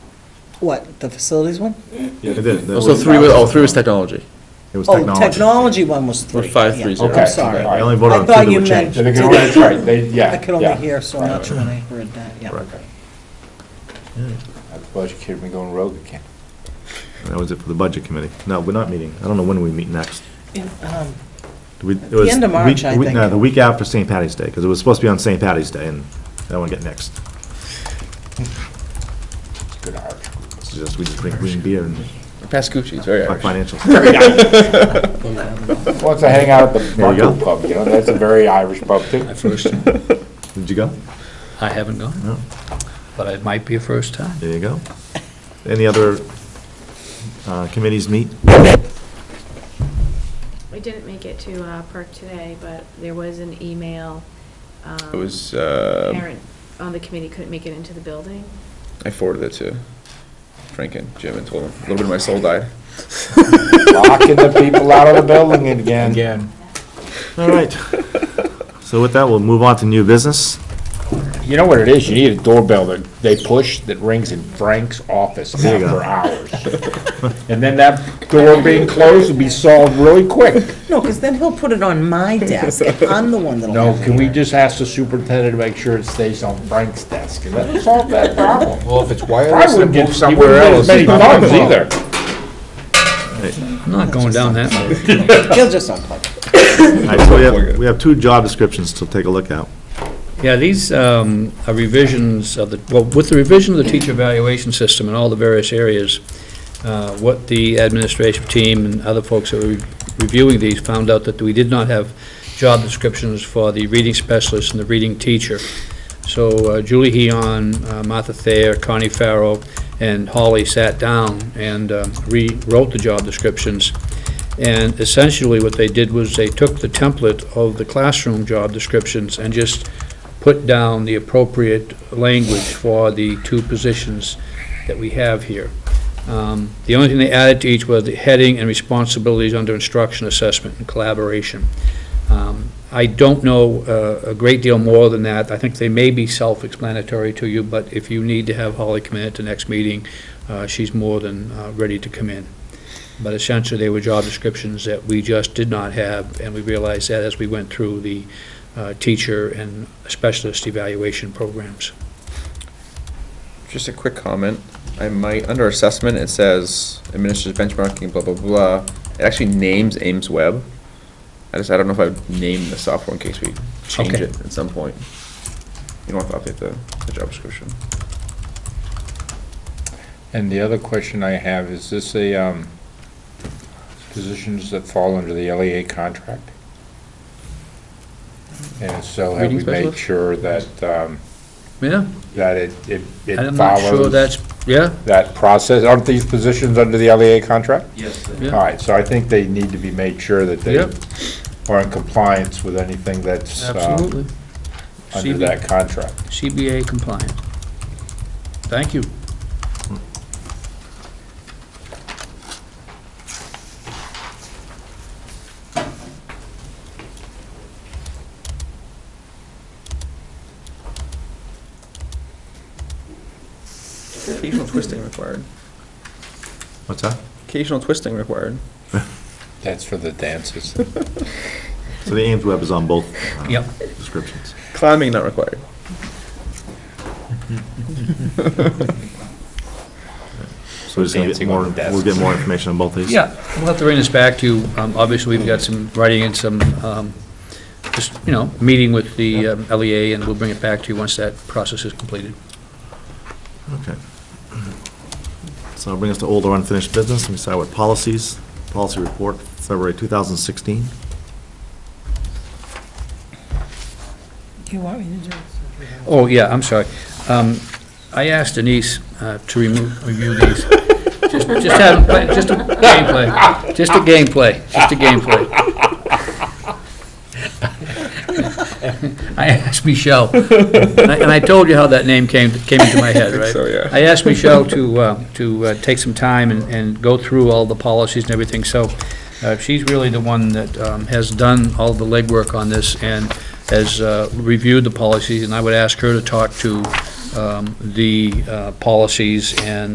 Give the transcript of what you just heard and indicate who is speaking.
Speaker 1: What, the facilities one?
Speaker 2: Yeah, it is. That
Speaker 3: Also,
Speaker 2: was-
Speaker 3: three was, oh, three was technology.
Speaker 2: It was
Speaker 1: Oh,
Speaker 2: technology.
Speaker 1: technology one was three.
Speaker 3: Or five,
Speaker 1: yeah.
Speaker 3: three, zero.
Speaker 1: I'm
Speaker 4: Okay,
Speaker 1: sorry.
Speaker 4: all
Speaker 2: I
Speaker 4: right.
Speaker 2: only voted
Speaker 1: I
Speaker 2: on two
Speaker 1: thought
Speaker 2: that
Speaker 1: you
Speaker 2: were
Speaker 1: meant-
Speaker 2: changed.
Speaker 4: So they can, that's right, they, yeah.
Speaker 1: I could only
Speaker 4: yeah.
Speaker 1: hear, so I'm
Speaker 4: Right,
Speaker 1: not
Speaker 4: right.
Speaker 1: sure when I heard that, yeah.
Speaker 2: Right.
Speaker 4: Budget kid, we going rogue again.
Speaker 2: That was it for the budget committee. No, we're not meeting. I don't know when we meet next.
Speaker 1: In, um,
Speaker 2: Do we- it
Speaker 1: the
Speaker 2: was
Speaker 1: end of
Speaker 2: week-
Speaker 1: March, I
Speaker 2: week- No,
Speaker 1: think.
Speaker 2: the week after St. Patty's Day, because it was supposed to be on St. Patty's Day, and that one get next.
Speaker 4: It's good art.
Speaker 2: It's just, we just drink green beer and
Speaker 3: Pascucci, it's very
Speaker 2: talk
Speaker 3: Irish.
Speaker 2: financials.
Speaker 4: Wants to hang out at the
Speaker 2: There you go.
Speaker 4: Buckle Pub, you know, that's a very Irish pub too.
Speaker 5: My first,
Speaker 2: Did you go?
Speaker 5: I haven't gone,
Speaker 2: No.
Speaker 5: but it might be a first time.
Speaker 2: There you go. Any other uh, committees meet?
Speaker 6: We didn't make it to uh, Perk today, but there was an email.
Speaker 3: It was, uh,
Speaker 6: Parent on the committee couldn't make it into the building.
Speaker 3: I forwarded it to Frank and Jim and told them, a little bit of my soul died.
Speaker 4: Locking the people out of the building again.
Speaker 5: Again.
Speaker 2: All right. So with that, we'll move on to new business.
Speaker 4: You know what it is, you need a doorbell that they push that rings in Frank's office
Speaker 2: There you go.
Speaker 4: after hours. And then that door being closed will be solved really quick.
Speaker 1: No, because then he'll put it on my desk, and I'm the one that'll
Speaker 4: No,
Speaker 1: have
Speaker 4: can
Speaker 1: it.
Speaker 4: we just ask the superintendent to make sure it stays on Frank's desk and that'll solve that problem?
Speaker 7: Well, if it's
Speaker 4: I
Speaker 7: wireless,
Speaker 4: wouldn't
Speaker 7: then
Speaker 4: get,
Speaker 7: move
Speaker 4: he wouldn't
Speaker 7: somewhere
Speaker 4: get
Speaker 7: else.
Speaker 4: as many thumbs either.
Speaker 5: I'm not going down that road.
Speaker 1: He'll just unplug it.
Speaker 2: All right, so we have, we have two job descriptions to take a look at.
Speaker 5: Yeah, these um, are revisions of the, well, with the revision of the teacher evaluation system in all the various areas, uh, what the administrative team and other folks that were reviewing these found out that we did not have job descriptions for the reading specialist and the reading teacher. So uh, Julie Heon, uh, Martha Thayer, Connie Farrow, and Holly sat down and um, rewrote the job descriptions. And essentially, what they did was they took the template of the classroom job descriptions and just put down the appropriate language for the two positions that we have here. Um, The only thing they added to each was the heading and responsibilities under instruction, assessment, and collaboration. Um, I don't know uh, a great deal more than that. I think they may be self-explanatory to you, but if you need to have Holly come in at the next meeting, uh, she's more than uh, ready to come in. But essentially, they were job descriptions that we just did not have, and we realized that as we went through the uh, teacher and specialist evaluation programs.
Speaker 3: Just a quick comment. I might, under assessment, it says administrative benchmarking, blah, blah, blah. It actually names Ames Web. I just, I don't know if I would name the software in case we change
Speaker 5: Okay.
Speaker 3: it at some point. You don't have to update the, the job description.
Speaker 4: And the other question I have, is this a, um, positions that fall under the LEA contract? And so have
Speaker 5: Reading
Speaker 4: we made
Speaker 5: specialist?
Speaker 4: sure that, um,
Speaker 5: Yeah,
Speaker 4: that it, it it
Speaker 5: I'm not sure
Speaker 4: follows
Speaker 5: that's, yeah,
Speaker 4: that process? Aren't these positions under the LEA contract? All
Speaker 5: yeah,
Speaker 4: right, so I think they need to be made sure that they
Speaker 5: Yep.
Speaker 4: are in compliance with anything that's, uh,
Speaker 5: absolutely.
Speaker 4: under
Speaker 5: CB
Speaker 4: that contract.
Speaker 5: CBA compliant. Thank you.
Speaker 3: Occasional twisting required.
Speaker 2: What's that?
Speaker 3: Occasional twisting required.
Speaker 4: That's for the dances.
Speaker 2: So the Ames Web is on both uh,
Speaker 5: Yep.
Speaker 2: descriptions.
Speaker 3: Climbing not required.
Speaker 2: So we're just gonna get
Speaker 4: Dancing on
Speaker 2: more,
Speaker 4: the desk.
Speaker 2: we'll get more information on both these.
Speaker 5: Yeah, we'll have to bring this back to you. Um, Obviously, we've got some writing and some, um, just, you know, meeting with the um, LEA, and we'll bring it back to you once that process is completed.
Speaker 2: Okay. So that'll bring us to older unfinished business. Let me start with policies. Policy report, February 2016.
Speaker 1: You want me to do it?
Speaker 5: Oh, yeah, I'm sorry. Um, I asked Denise uh, to remove, review these. Just just have, them play- just a gameplay, just a gameplay, just a gameplay. I asked Michelle, and I- and I told you how that name came, came into my head, right?
Speaker 3: so, yeah.
Speaker 5: I asked Michelle to, uh, to uh, take some time and, and go through all the policies and everything, so uh, she's really the one that um, has done all the legwork on this and has uh, reviewed the policies, and I would ask her to talk to um, the uh, policies and